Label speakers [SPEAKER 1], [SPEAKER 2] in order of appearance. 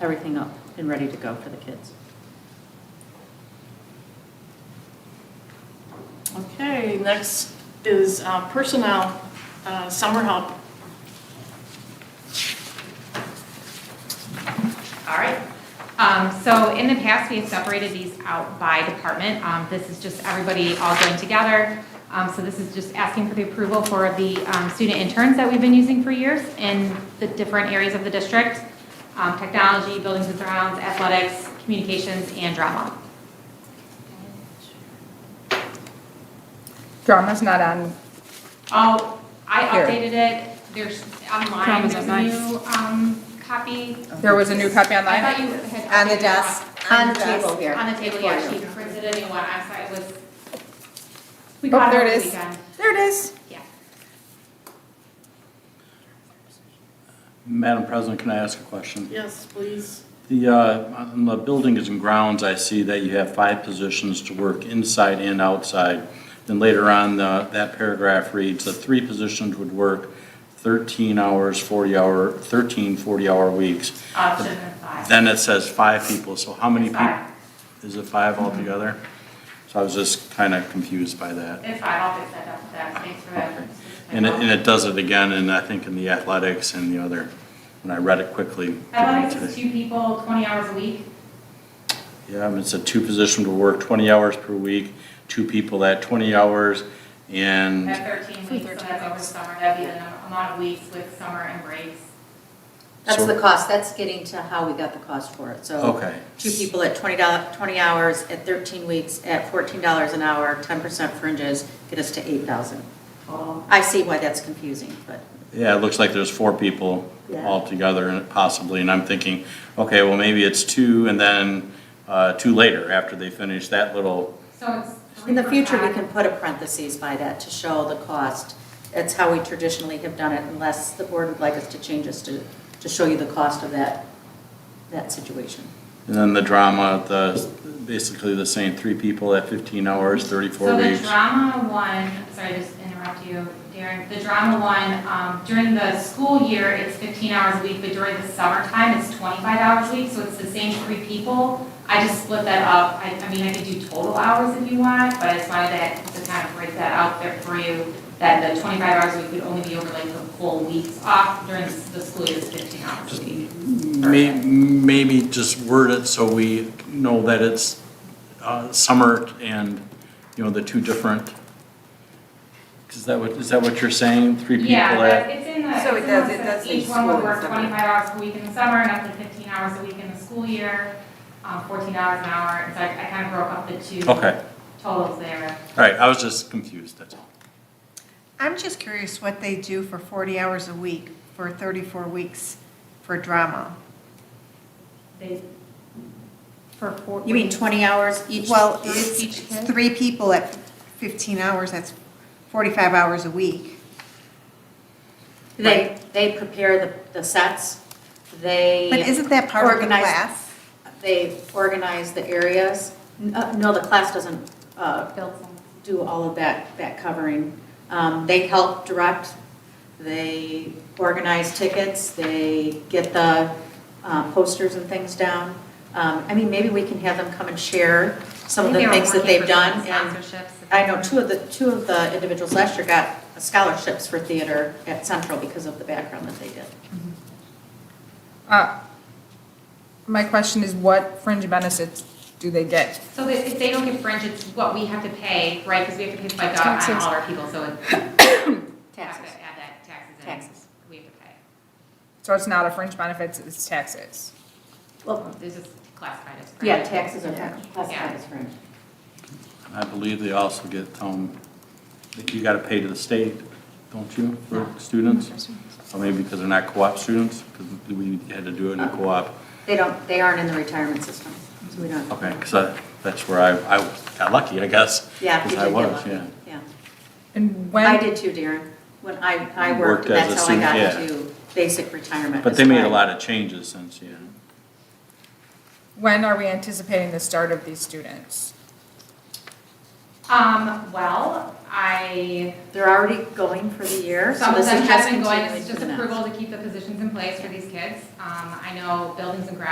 [SPEAKER 1] everything up and ready to go for the kids.
[SPEAKER 2] Okay, next is uh, personnel, uh, summer help.
[SPEAKER 3] All right. Um, So in the past, we have separated these out by department. Um, This is just everybody all going together. Um, So this is just asking for the approval for the um, student interns that we've been using for years in the different areas of the district, um, technology, buildings and grounds, athletics, communications, and drama.
[SPEAKER 4] Drama's not on,
[SPEAKER 3] Oh, I
[SPEAKER 4] Here.
[SPEAKER 3] updated it. There's online,
[SPEAKER 4] Drama's
[SPEAKER 3] there's a
[SPEAKER 4] online.
[SPEAKER 3] new um, copy.
[SPEAKER 4] there was a new copy
[SPEAKER 3] I
[SPEAKER 4] online?
[SPEAKER 3] thought you had.
[SPEAKER 5] On the
[SPEAKER 3] updated
[SPEAKER 5] desk, on the table here.
[SPEAKER 3] On the table, yeah,
[SPEAKER 5] For
[SPEAKER 3] she
[SPEAKER 5] you.
[SPEAKER 3] printed a new one, I thought it was. We
[SPEAKER 4] Oh,
[SPEAKER 3] got it
[SPEAKER 4] there
[SPEAKER 3] over
[SPEAKER 4] it
[SPEAKER 3] the
[SPEAKER 4] is.
[SPEAKER 3] weekend,
[SPEAKER 4] There it is.
[SPEAKER 3] yeah.
[SPEAKER 6] Madam President, can I ask a question?
[SPEAKER 2] Yes, please.
[SPEAKER 6] The, uh, on the buildings and grounds, I see that you have five positions to work inside and outside. Then later on, the- that paragraph reads, the three positions would work 13 hours, 40 hour, 13 40-hour weeks.
[SPEAKER 3] Option five.
[SPEAKER 6] Then it says five people, so how many people?
[SPEAKER 3] Five.
[SPEAKER 6] Is it five altogether? So I was just kind of confused by that.
[SPEAKER 3] It's five, I'll fix that up with that, thanks for that.
[SPEAKER 6] Okay. And it, and it does it again, and I think in the athletics and the other, when I read it quickly.
[SPEAKER 3] Athletics
[SPEAKER 6] today.
[SPEAKER 3] is two people, twenty hours a week,
[SPEAKER 6] Yeah, and it's a two position to work twenty hours per week, two people at twenty hours, and,
[SPEAKER 3] at thirteen weeks, so that's over summer, that'd be the amount of weeks with summer and breaks.
[SPEAKER 1] That's
[SPEAKER 6] So-
[SPEAKER 1] the cost, that's getting to how we got the cost for it, so.
[SPEAKER 6] Okay.
[SPEAKER 1] Two people at twenty dollars, twenty hours, at thirteen weeks, at fourteen dollars an hour, ten percent fringes, get us to eight thousand.
[SPEAKER 3] total.
[SPEAKER 1] I see why that's confusing, but.
[SPEAKER 6] yeah, it looks like there's four people
[SPEAKER 1] Yeah.
[SPEAKER 6] altogether and possibly, and I'm thinking, okay, well, maybe it's two and then, uh, two later after they finish that little,
[SPEAKER 3] So it's.
[SPEAKER 1] In the future, we
[SPEAKER 3] 3%.
[SPEAKER 1] can put a parentheses by that to show the cost. That's how we traditionally have done it unless the board would like us to change this to, to show you the cost of that, that situation.
[SPEAKER 6] and then the drama, the, basically the same, three people at fifteen hours, thirty-four
[SPEAKER 3] So the
[SPEAKER 6] weeks.
[SPEAKER 3] drama one, sorry, just to interrupt you, Darren, the drama one, um, during the school year, it's fifteen hours a week, but during the summertime, it's twenty-five hours a week, so it's the same three people. I just split that up, I, I mean, I could do total hours if you want, but I just wanted to, to kind of break that out there for you, that the twenty-five hours a week would only be over like the full weeks off during the school year, it's fifteen hours a week.
[SPEAKER 6] May, maybe just word it so we know that it's, uh, summer and, you know, the two different. Is that what, is that what you're saying? Three people
[SPEAKER 3] Yeah,
[SPEAKER 6] at?
[SPEAKER 3] but it's in the,
[SPEAKER 5] So it does- it
[SPEAKER 3] it's
[SPEAKER 5] does
[SPEAKER 3] in the,
[SPEAKER 5] say
[SPEAKER 3] each one would
[SPEAKER 5] school
[SPEAKER 3] work
[SPEAKER 5] and summer.
[SPEAKER 3] twenty-five hours per week in the summer, and up to fifteen hours a week in the school year, um, fourteen hours an hour, and so I, I kind of broke up the two
[SPEAKER 6] Okay,
[SPEAKER 3] totals there.
[SPEAKER 6] all right, I was just confused, that's all.
[SPEAKER 7] I'm just curious what they do for 40 hours a week, for 34 weeks for drama.
[SPEAKER 3] They, for four.
[SPEAKER 1] You mean 20 hours each?
[SPEAKER 7] Well,
[SPEAKER 3] For
[SPEAKER 7] it's
[SPEAKER 3] each kid?
[SPEAKER 7] three people at 15 hours, that's 45 hours a week.
[SPEAKER 1] They, they prepare the, the sets, they.
[SPEAKER 7] But isn't that part of the
[SPEAKER 1] organize-
[SPEAKER 7] class?
[SPEAKER 1] They organize the areas. N- uh, No, the class doesn't uh,
[SPEAKER 3] Built some.
[SPEAKER 1] do all of that, that covering. Um, They help direct, they organize tickets, they get the uh, posters and things down. Um, I mean, maybe we can have them come and share some of
[SPEAKER 3] I
[SPEAKER 1] the
[SPEAKER 3] think they were
[SPEAKER 1] things that
[SPEAKER 3] working
[SPEAKER 1] they've
[SPEAKER 3] for
[SPEAKER 1] done.
[SPEAKER 3] some
[SPEAKER 1] And
[SPEAKER 3] Sponsorships.
[SPEAKER 1] I know two of the, two of the individuals last year got scholarships for theater at Central because of the background that they did.
[SPEAKER 4] Uh, My question is what fringe benefits do they get?
[SPEAKER 3] So that if they don't get fringe, it's what we have to pay, right, because we have to pay FICA on
[SPEAKER 4] Taxes.
[SPEAKER 3] all our people, so it's. Have
[SPEAKER 1] Taxes.
[SPEAKER 3] to add that taxes in.
[SPEAKER 1] Taxes.
[SPEAKER 3] We have to pay.
[SPEAKER 4] So it's not a fringe benefits, it's taxes.
[SPEAKER 1] Well,
[SPEAKER 3] This is classified as. fringe.
[SPEAKER 1] yeah, taxes are classified as fringe.
[SPEAKER 6] I believe they also get, um, that you gotta pay to the state, don't you, for students? Or maybe because they're not co-op students, because we had to do it in a co-op.
[SPEAKER 1] They don't, they aren't in the retirement system, so we don't.
[SPEAKER 6] Okay, because that's where I, I got lucky, I guess.
[SPEAKER 1] Yeah, you
[SPEAKER 6] Because
[SPEAKER 1] did
[SPEAKER 6] I
[SPEAKER 1] get
[SPEAKER 6] was,
[SPEAKER 1] lucky,
[SPEAKER 6] yeah.
[SPEAKER 1] yeah.
[SPEAKER 4] And
[SPEAKER 1] I
[SPEAKER 4] when,
[SPEAKER 1] did too, Darren. When I, I worked,
[SPEAKER 6] Worked
[SPEAKER 1] and
[SPEAKER 6] as a
[SPEAKER 1] that's how I
[SPEAKER 6] senior,
[SPEAKER 1] got
[SPEAKER 6] yeah.
[SPEAKER 1] to basic retirement.
[SPEAKER 6] But they made a lot of changes since, yeah.
[SPEAKER 4] when are we anticipating the start of these students?
[SPEAKER 3] Um, well, I
[SPEAKER 1] They're already going for the year, so
[SPEAKER 3] Some of
[SPEAKER 1] this
[SPEAKER 3] them
[SPEAKER 1] is just
[SPEAKER 3] have been going,
[SPEAKER 1] continuing
[SPEAKER 3] it's
[SPEAKER 1] for
[SPEAKER 3] just
[SPEAKER 1] the next.
[SPEAKER 3] approval to keep the positions in place for these kids. Um, I know buildings and grounds